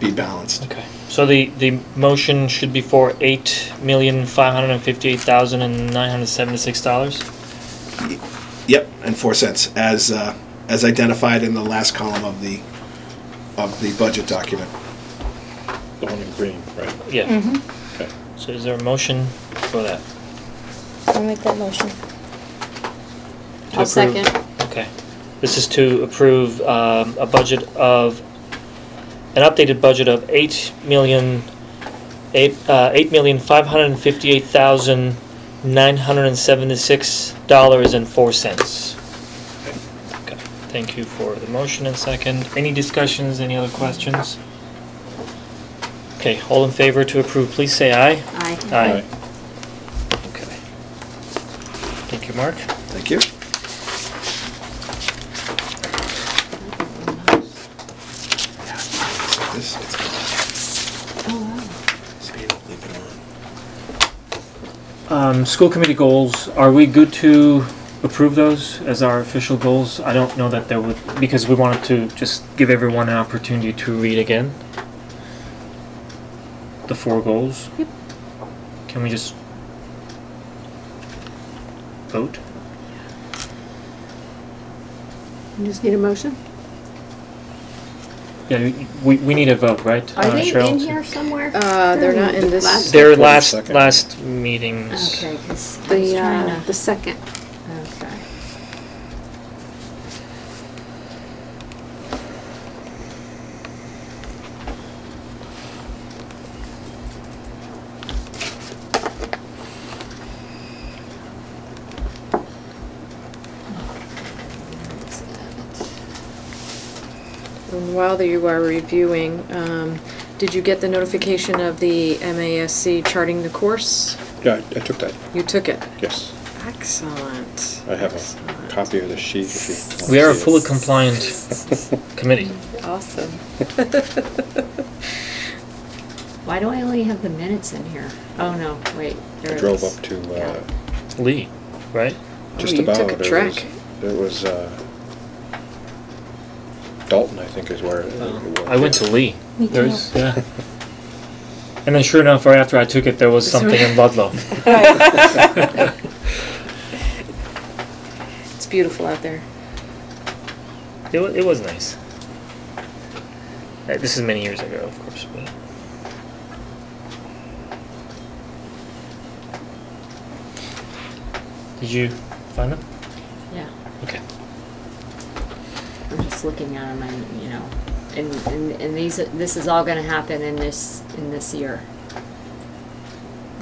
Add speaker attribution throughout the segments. Speaker 1: be balanced.
Speaker 2: Okay, so the, the motion should be for eight million, five hundred and fifty-eight thousand and nine hundred and seventy-six dollars?
Speaker 1: Yep, and four cents as uh, as identified in the last column of the of the budget document.
Speaker 3: The one in green, right?
Speaker 2: Yeah,
Speaker 3: Okay.
Speaker 2: so is there a motion for that?
Speaker 4: Mm-hmm. I'll make that motion.
Speaker 2: To
Speaker 4: I'll
Speaker 2: approve-
Speaker 4: second.
Speaker 2: Okay, this is to approve, um, a budget of, an updated budget of eight million, eight, uh, eight million, five hundred and fifty-eight thousand, nine hundred and seventy-six dollars and four cents. Okay, thank you for the motion and second. Any discussions, any other questions? Okay, all in favor to approve, please say aye.
Speaker 5: Uh,
Speaker 4: Aye.
Speaker 2: Aye. Okay. Thank you, Mark.
Speaker 1: Thank you. This, it's so you don't leave it on.
Speaker 2: Um, school committee goals, are we good to approve those as our official goals? I don't know that there would, because we wanted to just give everyone an opportunity to read again. The four goals.
Speaker 4: Yep.
Speaker 2: Can we just vote?
Speaker 5: You just need a motion?
Speaker 2: Yeah, you- we, we need a vote, right?
Speaker 4: Are
Speaker 2: uh,
Speaker 4: they
Speaker 2: Cheryl,
Speaker 4: in
Speaker 2: to-
Speaker 4: here somewhere?
Speaker 5: Uh, they're not in this,
Speaker 2: They're
Speaker 1: Wait a
Speaker 2: last,
Speaker 1: second.
Speaker 2: last meetings.
Speaker 4: Okay, 'cause I was
Speaker 5: the, uh,
Speaker 4: trying
Speaker 5: the
Speaker 4: to,
Speaker 5: second.
Speaker 4: okay.
Speaker 5: And While you are reviewing, um, did you get the notification of the MASC charting the course?
Speaker 3: Yeah, I I took that,
Speaker 5: You took it?
Speaker 3: yes.
Speaker 5: Excellent.
Speaker 3: I have a
Speaker 5: Excellent.
Speaker 3: copy of the sheet if you want
Speaker 2: We are a
Speaker 3: to see it.
Speaker 2: fully compliant committee.
Speaker 5: Awesome.
Speaker 4: Why do I only have the minutes in here? Oh, no, wait,
Speaker 3: I
Speaker 4: there it
Speaker 3: drove
Speaker 4: is. Oh,
Speaker 3: up to,
Speaker 4: Yeah.
Speaker 3: uh,
Speaker 2: Lee, right?
Speaker 3: just
Speaker 5: Oh, you
Speaker 3: about.
Speaker 5: took a
Speaker 3: it was-
Speaker 5: trek.
Speaker 3: It was, uh, Dalton, I think is where. it- it was.
Speaker 2: I went to Lee.
Speaker 4: Me
Speaker 2: There's, yeah. And then sure enough, right after I took it, there was something in Ludlow.
Speaker 5: It's beautiful out there.
Speaker 2: It wa- it was nice. Uh, This is many years ago, of course, but. Did you find them?
Speaker 4: Yeah,
Speaker 2: Okay.
Speaker 4: I'm just looking at them and, you know, and, and, and these, this is all gonna happen in this, in this year.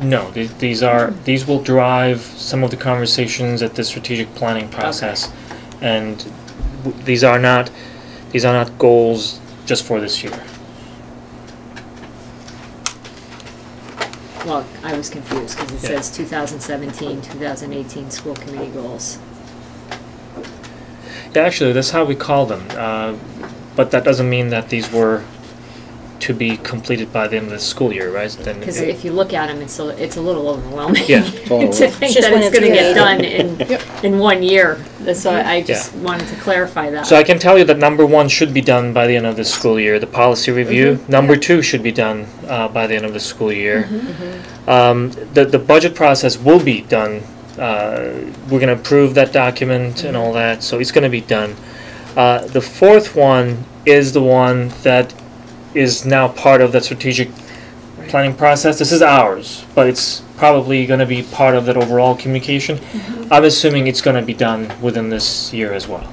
Speaker 2: No, these, these are, these will drive some of the conversations at the strategic planning process. And w- these are not, these are not goals just for this year.
Speaker 4: Well, I was confused, cause it
Speaker 2: Yeah.
Speaker 4: says 2017-2018 school committee goals.
Speaker 2: Yeah, actually, that's how we call them. Uh, but that doesn't mean that these were to be completed by the end of the school year, right? Then
Speaker 4: Because
Speaker 2: it-
Speaker 4: if you look at them, it's a, it's a little overwhelming.
Speaker 2: Yeah.
Speaker 3: Oh,
Speaker 4: To think
Speaker 6: Just
Speaker 4: that
Speaker 6: when
Speaker 4: it's
Speaker 6: it's
Speaker 4: gonna get
Speaker 6: created.
Speaker 4: done in, in one year, That's so I just
Speaker 2: Yeah.
Speaker 4: wanted to clarify that.
Speaker 2: so I can tell you that number one should be done by the end of the school year, the policy review. Number
Speaker 4: Yeah.
Speaker 2: two should be done uh, by the end of the school year. Um, the the budget process will be done. Uh, we're going to approve that document and all that, so it's going to be done. Uh, the fourth one is the one that is now part of the strategic planning process. This is ours, but it's probably going to be part of that overall communication. I'm assuming it's going to be done within this year as well.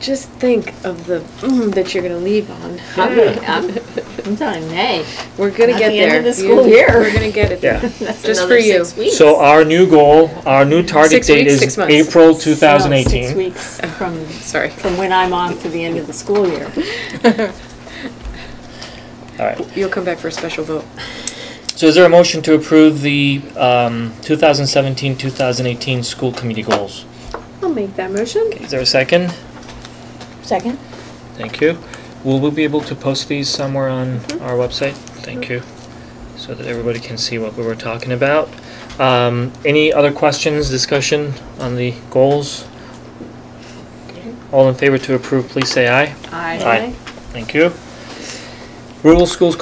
Speaker 5: Just think of the, mm, that you're gonna leave on.
Speaker 4: I'm, I'm, Uh, I'm done in May.
Speaker 5: We're gonna
Speaker 4: At
Speaker 5: get there.
Speaker 4: the end of the
Speaker 5: You-
Speaker 4: school year.
Speaker 5: We're gonna get it.
Speaker 2: Yeah.
Speaker 4: That's
Speaker 5: Just
Speaker 4: another
Speaker 5: for you.
Speaker 4: six weeks.
Speaker 2: So our new goal, our new target
Speaker 5: Six
Speaker 2: date
Speaker 5: weeks, six
Speaker 2: is
Speaker 5: months.
Speaker 2: April
Speaker 6: No,
Speaker 2: 2018.
Speaker 6: Six weeks from,
Speaker 5: Sorry.
Speaker 6: from when I'm off to the end of the school year.
Speaker 2: All right.
Speaker 5: You'll come back for a special vote.
Speaker 2: So is there a motion to approve the um, 2017-2018 school committee goals?
Speaker 5: I'll make that motion.
Speaker 2: Is there a second?
Speaker 6: Second?
Speaker 2: Thank you. Will we be able to post these somewhere on
Speaker 5: Mm-hmm.
Speaker 2: our website? Thank you. So that everybody can see what we were talking about. Um, Any other questions, discussion on the goals? All in favor to approve, please say aye.
Speaker 4: I-
Speaker 2: Thank you. Rural Schools